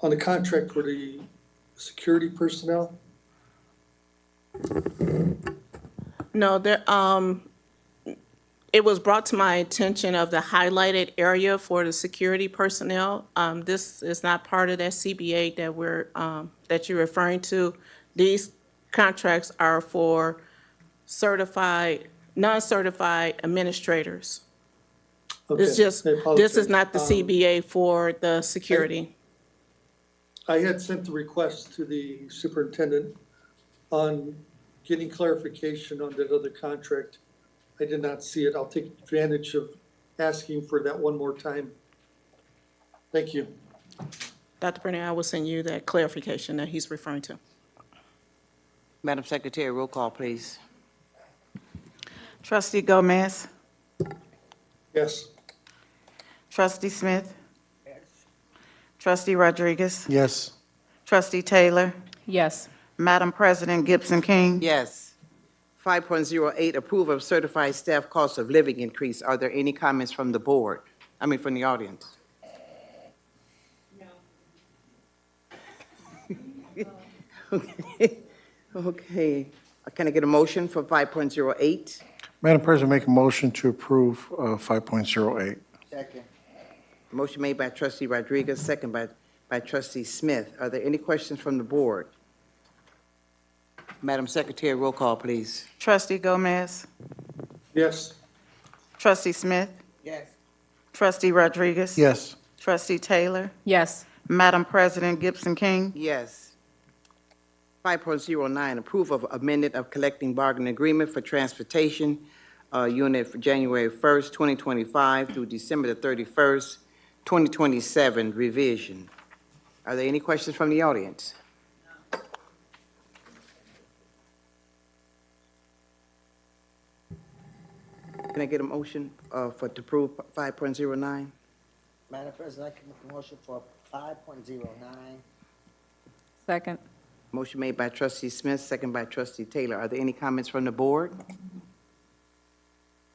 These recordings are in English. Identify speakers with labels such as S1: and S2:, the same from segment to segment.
S1: on the contract for the security personnel?
S2: No, there, um, it was brought to my attention of the highlighted area for the security personnel. Um, this is not part of that CBA that we're, um, that you're referring to. These contracts are for certified, non-certified administrators. It's
S1: Okay,
S2: just,
S1: I
S2: this is
S1: apologize.
S2: not the
S1: Um,
S2: CBA for the security.
S1: I had sent the request to the superintendent on getting clarification on that other contract. I did not see it. I'll take advantage of asking for that one more time. Thank you.
S2: Dr. Brenner, I will send you that clarification that he's referring to.
S3: Madam Secretary, roll call, please.
S4: Trustee Gomez.
S1: Yes.
S4: Trustee Smith. Trustee Rodriguez.
S5: Yes.
S4: Trustee Taylor.
S6: Yes.
S4: Madam President Gibson King.
S3: Yes. 5.08, approve of certified staff cost of living increase. Are there any comments from the board? I mean, from the audience? Okay. Okay. Can I get a motion for 5.08?
S5: Madam President, make a motion to approve uh, 5.08.
S3: Second. Motion made by trustee Rodriguez, second by, by trustee Smith. Are there any questions from the board? Madam Secretary, roll call, please.
S4: Trustee Gomez.
S1: Yes.
S4: Trustee Smith.
S3: Yes.
S4: Trustee Rodriguez.
S5: Yes.
S4: Trustee Taylor.
S6: Yes.
S4: Madam President Gibson King.
S3: Yes. 5.09, approve of amendment of collecting bargaining agreement for transportation uh, unit for January 1st, 2025 through December the 31st, 2027 revision. Are there any questions from the audience? Can I get a motion uh, for, to approve 5.09?
S7: Madam President, I can make a motion for five point zero nine.
S6: Second.
S3: Motion made by trustee Smith, second by trustee Taylor. Are there any comments from the board?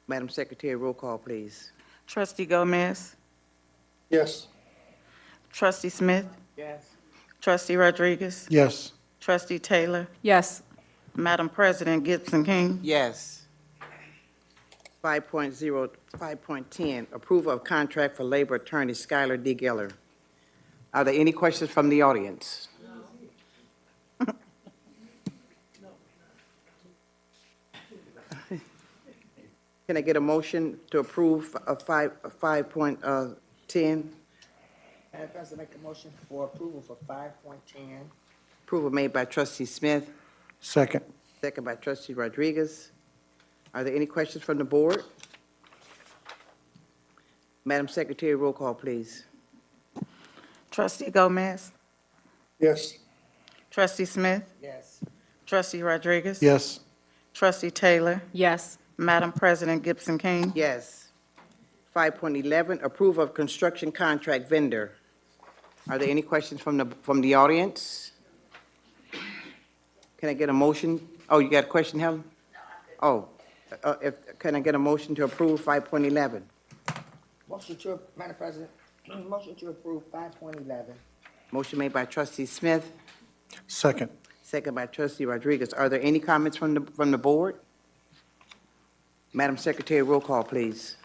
S3: Madam Secretary, roll call, please.
S4: Trustee Gomez.
S1: Yes.
S4: Trustee Smith.
S3: Yes.
S4: Trustee Rodriguez.
S5: Yes.
S4: Trustee Taylor.
S6: Yes.
S4: Madam President Gibson King.
S3: Yes. 5.0, 5.10, approval of contract for labor attorney Skylar D. Geller. Are there any questions from the audience? Can I get a motion to approve of 5, uh, 5.10?
S7: Madam President, make a motion for approval for five point ten.
S3: Approval made by trustee Smith,
S5: Second.
S3: second by trustee Rodriguez. Are there any questions from the board? Madam Secretary, roll call, please.
S4: Trustee Gomez.
S1: Yes.
S4: Trustee Smith.
S7: Yes.
S4: Trustee Rodriguez.
S5: Yes.
S4: Trustee Taylor.
S6: Yes.
S4: Madam President Gibson King.
S3: Yes. 5.11, approve of construction contract vendor. Are there any questions from the, from the audience? Can I get a motion? Oh, you got a question, Helen? Oh, uh, if, can I get a motion to approve 5.11?
S7: Motion to, Madam President, motion to approve five point eleven.
S3: Motion made by trustee Smith,
S5: Second.
S3: Second by trustee Rodriguez. Are there any comments from the, from the board? Madam Secretary, roll call, please.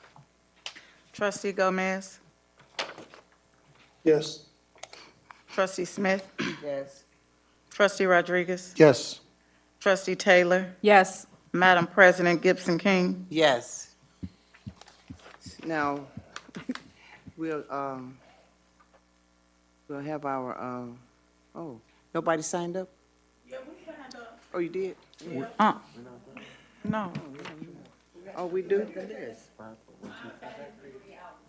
S4: Trustee Gomez.
S1: Yes.
S4: Trustee Smith.
S7: Yes.
S4: Trustee Rodriguez.
S5: Yes.
S4: Trustee Taylor.
S6: Yes.
S4: Madam President Gibson King.
S3: Yes. Now, we'll, um, we'll have our, um, oh, nobody signed up? Yeah, we signed up. Oh, you did?
S4: No.
S3: Oh, we do?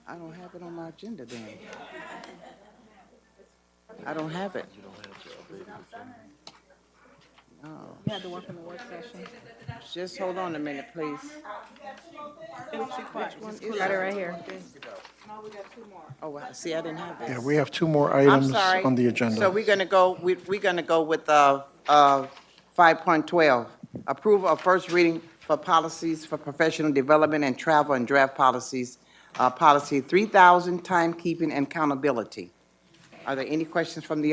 S3: I don't have it on my agenda then. I don't have it.
S6: You had to work in the work session.
S3: Just hold on a minute, please.
S6: Got it right here.
S3: Oh, I- see, I didn't have this.
S5: Yeah, we have two more
S3: I'm
S5: items
S3: sorry.
S5: on the
S3: So
S5: agenda.
S3: we're going to go, we- we're going to go with uh, uh, 5.12, approval of first reading for policies for professional development and travel and draft policies, uh, policy 3,000, timekeeping and accountability. Are there any questions from the